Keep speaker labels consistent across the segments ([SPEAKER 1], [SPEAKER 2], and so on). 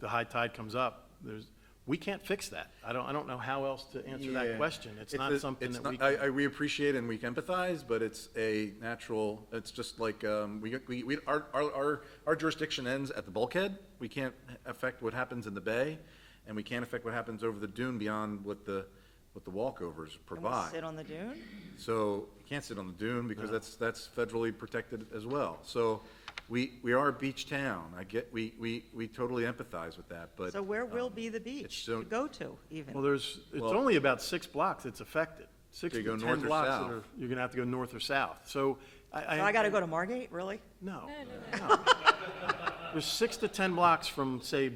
[SPEAKER 1] the high tide comes up, there's, we can't fix that. I don't, I don't know how else to answer that
[SPEAKER 2] Yeah.
[SPEAKER 1] question. It's not
[SPEAKER 2] a-
[SPEAKER 1] something
[SPEAKER 2] it's
[SPEAKER 1] that
[SPEAKER 2] not-
[SPEAKER 1] we,
[SPEAKER 2] I, I, we appreciate and we can empathize, but it's a natural, it's just like, um, we, we, we, our, our- our, our jurisdiction ends at the bulkhead. We can't affect what happens in the bay, and we can't affect what happens over the dune beyond what the, what the walkovers
[SPEAKER 3] Can we
[SPEAKER 2] provide.
[SPEAKER 3] sit on the dune?
[SPEAKER 2] So you can't sit on the dune because that's, that's federally protected as well. So we, we are a beach town. I get, we, we, we totally empathize with that, but.
[SPEAKER 3] So where will
[SPEAKER 2] um,
[SPEAKER 3] be the
[SPEAKER 2] it's
[SPEAKER 3] beach
[SPEAKER 2] so-
[SPEAKER 3] to go to
[SPEAKER 1] well,
[SPEAKER 3] even?
[SPEAKER 1] there's, it's
[SPEAKER 2] Well-
[SPEAKER 1] only about six blocks that's affected. Six
[SPEAKER 2] Do
[SPEAKER 1] to
[SPEAKER 2] you go
[SPEAKER 1] ten
[SPEAKER 2] north or
[SPEAKER 1] blocks that
[SPEAKER 2] south?
[SPEAKER 1] are, you're gonna have to go north or south. So I, I.
[SPEAKER 3] So I gotta go to Margate, really?
[SPEAKER 1] No. no. There's six to 10 blocks from, say,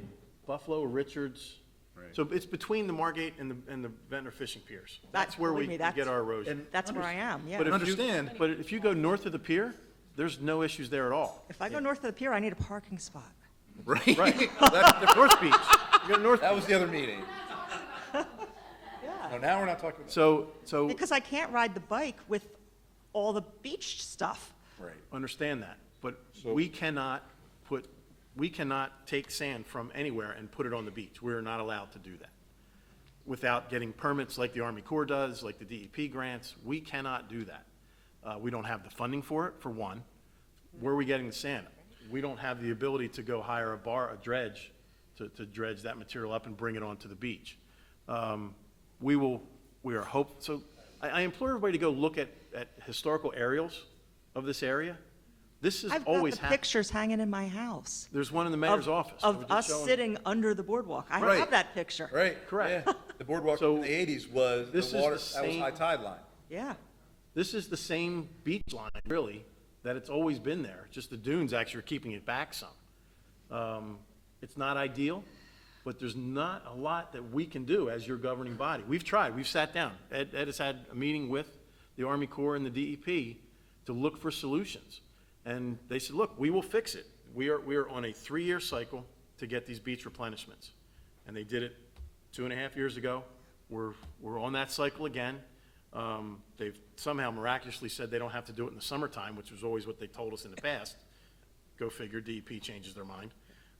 [SPEAKER 1] Buffalo, Richards.
[SPEAKER 2] Right.
[SPEAKER 1] So it's between the Margate and the, and the Ventnor Fishing Piers.
[SPEAKER 3] That-
[SPEAKER 1] That's where we
[SPEAKER 3] believe me,
[SPEAKER 1] we
[SPEAKER 3] that's-
[SPEAKER 1] get our erosion.
[SPEAKER 2] And-
[SPEAKER 3] That's where I am,
[SPEAKER 1] But if
[SPEAKER 3] yeah.
[SPEAKER 1] you-
[SPEAKER 2] Understand.
[SPEAKER 1] But if you go north of the pier, there's no issues there at all.
[SPEAKER 3] If I go north of the pier, I need a parking spot.
[SPEAKER 2] Right.
[SPEAKER 1] Right.
[SPEAKER 2] That's the-
[SPEAKER 1] North Beach, you go to North
[SPEAKER 2] That
[SPEAKER 1] Beach.
[SPEAKER 2] was the other meeting.
[SPEAKER 3] Yeah.
[SPEAKER 2] No, now we're not talking about.
[SPEAKER 1] So, so
[SPEAKER 3] Because I can't ride the bike with all the beach stuff.
[SPEAKER 2] Right.
[SPEAKER 1] understand that, but we cannot put, we cannot take sand from anywhere and put it on the beach. We're not allowed to do that. Without getting permits like the Army Corps does, like the DEP grants, we cannot do that. Uh, we don't have the funding for it, for one. Where are we getting the sand? We don't have the ability to go hire a bar, a dredge, to, to dredge that material up and bring it onto the beach. Um, we will, we are hope, so I, I implore everybody to go look at, at historical aerials of this area. This has
[SPEAKER 3] I've got
[SPEAKER 1] always
[SPEAKER 3] the
[SPEAKER 1] happened.
[SPEAKER 3] pictures hanging in my house.
[SPEAKER 1] There's one in the mayor's
[SPEAKER 3] of-
[SPEAKER 1] office. I was
[SPEAKER 3] Of
[SPEAKER 1] just
[SPEAKER 3] us
[SPEAKER 1] showing-
[SPEAKER 3] sitting under the boardwalk. I
[SPEAKER 2] Right.
[SPEAKER 3] have that picture.
[SPEAKER 2] Right.
[SPEAKER 1] Correct.
[SPEAKER 2] yeah. The boardwalk
[SPEAKER 1] So,
[SPEAKER 2] in the eighties was,
[SPEAKER 1] this is
[SPEAKER 2] the water,
[SPEAKER 1] the
[SPEAKER 2] that was
[SPEAKER 1] same-
[SPEAKER 2] high tide line.
[SPEAKER 3] Yeah.
[SPEAKER 1] This is the same beach line, really, that it's always been there, just the dunes actually are keeping it back some. Um, It's not ideal, but there's not a lot that we can do as your governing body. We've tried, we've sat down. Ed, Ed has had a meeting with the Army Corps and the DEP to look for solutions. And they said, look, we will fix it. We are, we are on a three-year cycle to get these beach replenishments. And they did it two and a half years ago. We're, we're on that cycle again. Um, They've somehow miraculously said they don't have to do it in the summertime, which was always what they told us in the past. Go figure, DEP changes their mind.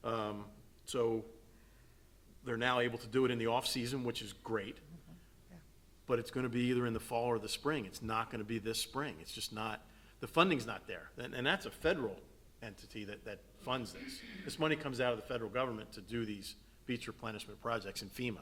[SPEAKER 1] Um, So they're now able to do it in the off-season, which is great. But it's gonna be either in the fall or the spring. It's not gonna be this spring. It's just not, the funding's not there. And, and that's a federal entity that, that funds this. This money comes out of the federal government to do these beach replenishment projects in FEMA.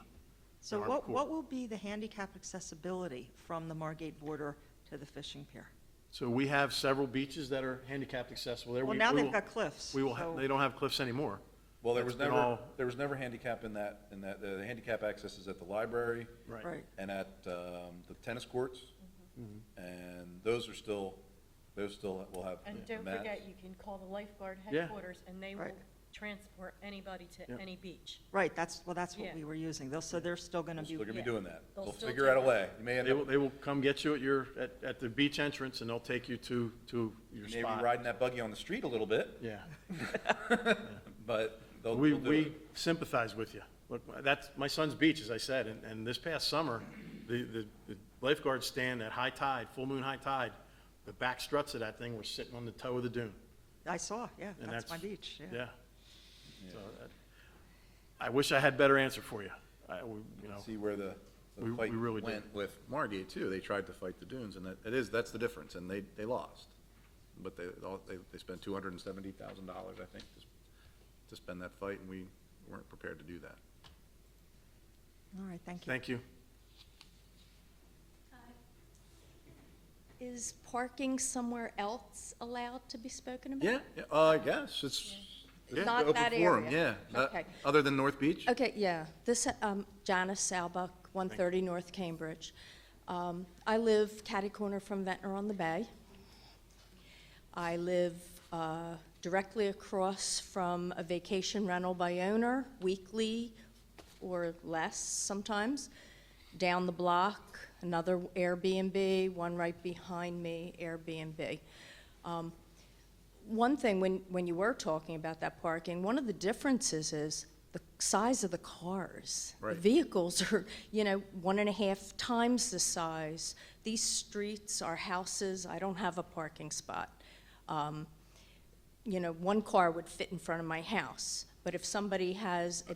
[SPEAKER 3] So
[SPEAKER 1] Army
[SPEAKER 3] what,
[SPEAKER 1] Corps.
[SPEAKER 3] what will be the handicap accessibility from the Margate border to the fishing pier?
[SPEAKER 1] So we have several beaches that are handicapped accessible there.
[SPEAKER 3] Well,
[SPEAKER 1] We-
[SPEAKER 3] now
[SPEAKER 1] we
[SPEAKER 3] they've
[SPEAKER 1] will-
[SPEAKER 3] got cliffs,
[SPEAKER 1] We will, ha-
[SPEAKER 3] so-
[SPEAKER 1] they don't have cliffs anymore.
[SPEAKER 2] Well, there
[SPEAKER 1] That's
[SPEAKER 2] was
[SPEAKER 1] been
[SPEAKER 2] never,
[SPEAKER 1] all-
[SPEAKER 2] there was never handicap in that, in that, uh, the handicap access is at the library.
[SPEAKER 1] Right.
[SPEAKER 3] Right.
[SPEAKER 2] And at, um, the tennis courts.
[SPEAKER 1] Mm-hmm.
[SPEAKER 2] And those are still, those still will have.
[SPEAKER 4] And don't
[SPEAKER 2] mats.
[SPEAKER 4] forget, you can call the lifeguard
[SPEAKER 1] Yeah.
[SPEAKER 4] headquarters, and they will
[SPEAKER 3] Right.
[SPEAKER 4] transport anybody
[SPEAKER 1] Yeah.
[SPEAKER 4] to any beach.
[SPEAKER 3] Right, that's, well, that's what
[SPEAKER 4] Yeah.
[SPEAKER 3] we were using. They'll- So they're still going to
[SPEAKER 2] They're
[SPEAKER 3] be.
[SPEAKER 2] still gonna be
[SPEAKER 4] yeah.
[SPEAKER 2] doing that.
[SPEAKER 4] They'll
[SPEAKER 2] They'll
[SPEAKER 4] still
[SPEAKER 2] figure out a
[SPEAKER 4] take
[SPEAKER 2] way. You may end
[SPEAKER 1] They will,
[SPEAKER 2] up,
[SPEAKER 1] they will come get you at your, at, at the beach entrance, and they'll take you to, to your
[SPEAKER 2] maybe
[SPEAKER 1] spot.
[SPEAKER 2] riding that buggy on the street a little bit,
[SPEAKER 1] Yeah.
[SPEAKER 2] but they'll,
[SPEAKER 1] We,
[SPEAKER 2] they'll do
[SPEAKER 1] we
[SPEAKER 2] it.
[SPEAKER 1] sympathize with you. Look, that's, my son's beach, as I said, and, and this past summer, the, the the lifeguards stand at high tide, full moon high tide, the back struts of that thing were sitting on the toe of the dune.
[SPEAKER 3] I saw, yeah,
[SPEAKER 1] and
[SPEAKER 3] that's my beach, yeah.
[SPEAKER 1] Yeah. So that- I wish I had better answer for you. I, we- you know,
[SPEAKER 2] See where the,
[SPEAKER 1] We-
[SPEAKER 2] the
[SPEAKER 1] Oh. we
[SPEAKER 2] fight
[SPEAKER 1] really do.
[SPEAKER 2] went with Margate too. They tried to fight the dunes and that, it is, that's the difference and they, they lost. But they, all- they, they spent two hundred and seventy thousand dollars, I think, to, s- to spend that fight and we weren't prepared to do that.
[SPEAKER 3] All right, thank you.
[SPEAKER 1] thank you.
[SPEAKER 5] Is parking somewhere else allowed to be spoken about?
[SPEAKER 2] Yeah, yeah, uh, I guess it's. it's an
[SPEAKER 5] Not
[SPEAKER 2] open
[SPEAKER 5] that
[SPEAKER 2] forum,
[SPEAKER 5] area.
[SPEAKER 2] Yeah, Uh,
[SPEAKER 5] Okay.
[SPEAKER 2] other than North Beach?
[SPEAKER 5] Okay, yeah. This, um, Janice Salbuck, 130 North Cambridge. Um, I live catty corner from Ventnor on the Bay. I live uh, directly across from a vacation rental by owner, weekly or less sometimes. Down the block, another Airbnb, one right behind me, Airbnb. Um, One thing, when, when you were talking about that parking, one of the differences is the size of the cars. The
[SPEAKER 2] Right.
[SPEAKER 5] Vehicles are, you know, one and a half times the size. These streets are houses, I don't have a parking spot. Um, You know, one car would fit in front of my house, but But if somebody has a